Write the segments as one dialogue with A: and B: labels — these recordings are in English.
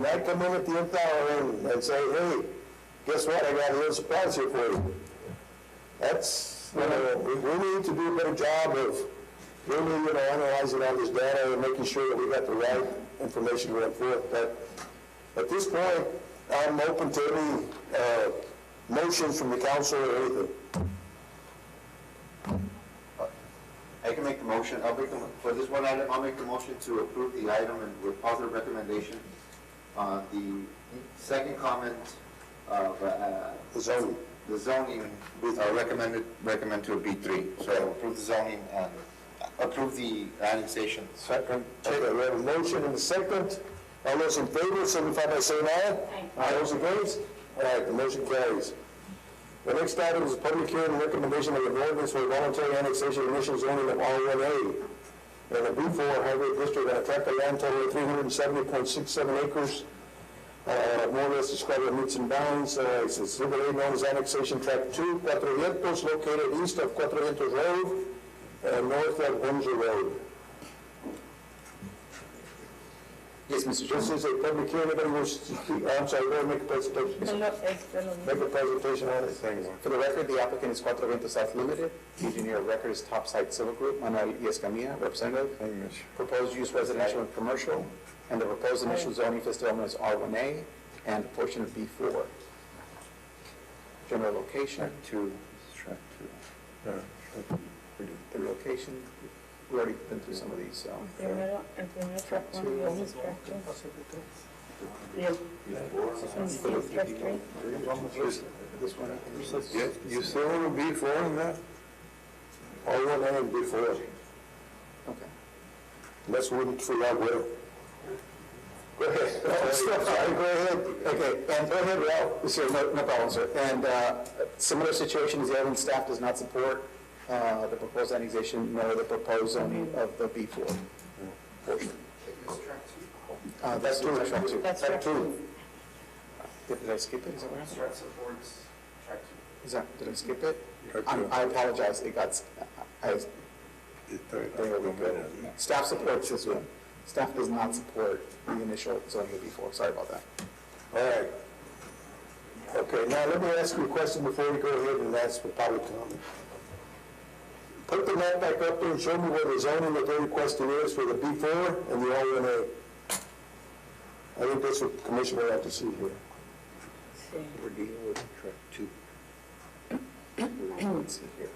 A: When I come in at the end hour and- and say, hey, guess what, I got a little surprise here for you. That's, you know, we, we need to do a better job of really, you know, analyzing all this data and making sure that we got the right information going forth. But at this point, I'm open to any, uh, motions from the council or anything.
B: I can make the motion, I'll make the, mo- for this one item, I'll make the motion to approve the item and with positive recommendation on the second comment of, uh,
A: The zoning.
B: the zoning, uh, recommended, recommend to a B three. So approve the zoning and approve the annexation.
A: Second. Okay, we have a motion and a second. All those in favor, signify by saying aye. Aye. Those against? All right, the motion carries. The next item is a public hearing and recommendation of an ordinance for voluntary annexation and initial zoning of R one A in the B four highway district on a tract of land totaling three hundred and seventy point six seven acres. Uh, more or less described in meets and bounds, uh, it's exhibit A known as annexation tract two, Cuatrocientos, located east of Cuatrocientos Road and north of Windsor Road.
C: Yes, Mr.
A: This is a public hearing, anybody wish to speak, I'm sorry, go ahead and make a presentation,
D: No, es de este, lo
A: make
D: mismo.
A: a presentation on it.
C: For the record, the applicant is Cuatro Vientos South Limited. The engineer of record is Topside Civil Group, Manuel Escamilla, representative. Proposed use residential and commercial, and the proposed initial zoning for this development is R1A and a portion of B4. General location. Two. The location, we already been through some of these, so.
D: El primero, el primero track one, the only track two. Y el- es track three.
C: This one.
A: You still want to be for in that? All one A and B four,
C: Okay.
A: let's win for that will. Go ahead. Oh, sorry, go ahead.
C: Okay, and go ahead, Ralph, sir, no, no problem, sir. And uh, similar situation is the Evans staff does not support uh, the proposed annexation nor the proposed zoning of the B4. Uh, That's true, that's true.
D: That's track two.
C: Did did I skip it? Is that what happened?
E: Strat supports track two.
C: Is that, did I skip it? I'm- I apologize, it got, s- I, I- there we go. Staff supports this one. Staff does not support the initial zoning of B4, sorry about that.
A: All right. Okay, now let me ask you a question before we go ahead and ask for public comment. Put the map back up there and show me where the zoning that they're requesting is for the B four and the R one A. I think that's what the commissioner ought to see here.
D: Sí.
C: We're dealing with track two. Let's see here.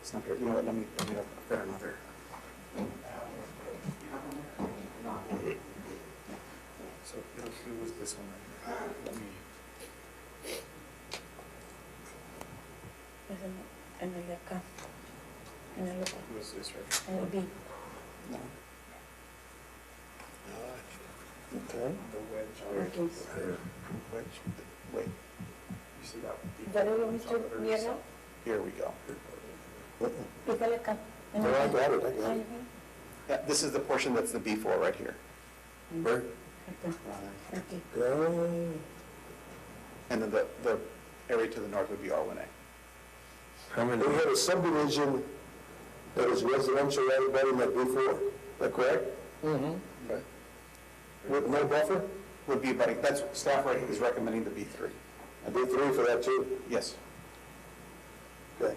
C: It's not here, you know what, let me, let me look at another.
E: So it'll do with this one right
D: Es en en el de acá. En el otro,
E: here. Who's this right?
D: en el B.
C: No.
A: Okay.
E: The wedge.
D: el 15.
E: Wedge.
C: Wait,
E: You see that?
D: Dale lo mismo, mierda.
C: here we go.
D: Pícale acá. en
A: No,
D: el
A: I
D: B.
A: got it, I got
D: Ahí,
A: it.
C: Yeah, Uh, this is the portion that's the B4 right here.
A: Right.
D: acá, aquí.
A: Yeah.
C: And then the, the area to the north would be R1A.
A: We had a subdivision that is residential right about in that B four, is that correct?
C: Okay.
A: With no buffer?
C: Would be, but that's, staff right is recommending the B3.
A: A B three for that too?
C: Yes.
A: Okay.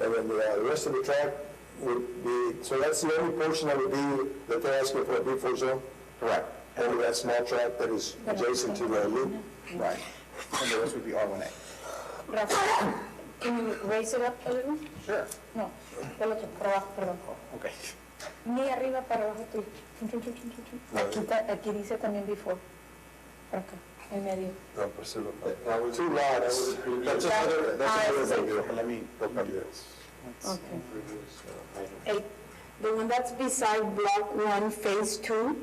A: And then the uh, the rest of the track would be, so that's the only portion that would be, that they're asking for a B4 zone?
C: Correct.
A: Only that small track that is adjacent to the loop?
C: Right. And the rest would be R1A.
D: Rafa, can you raise it up a little?
C: Sure.
D: No, del otro, para abajo, perdón.
C: Okay.
D: Ni arriba, para abajo, tú. Chun, chun, chun, chun, chun, chun. Aquí, ta- aquí dice también before. Por acá, en medio.
A: Two lots. That's
F: Uh,
A: another,
D: Ah,
A: that's
D: it's
A: another big
D: like-
A: deal.
C: Let me look up this.
D: Okay.
F: Eight, the one that's beside block one, phase two,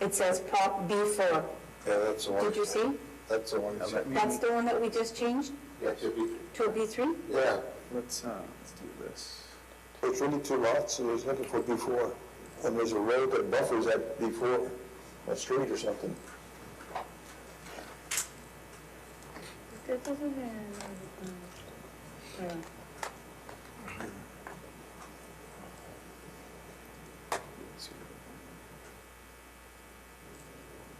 F: it says block B four.
B: Yeah, that's the
F: Did you see?
B: That's the one.
F: That's the one that we just changed
B: Yeah, to B three.
F: to a B three?
A: Yeah,
C: Let's, uh, let's do this.
A: it's really two lots, and there's nothing for B4. And there's a road that buffers that B4, a street or something.
D: This is in, um,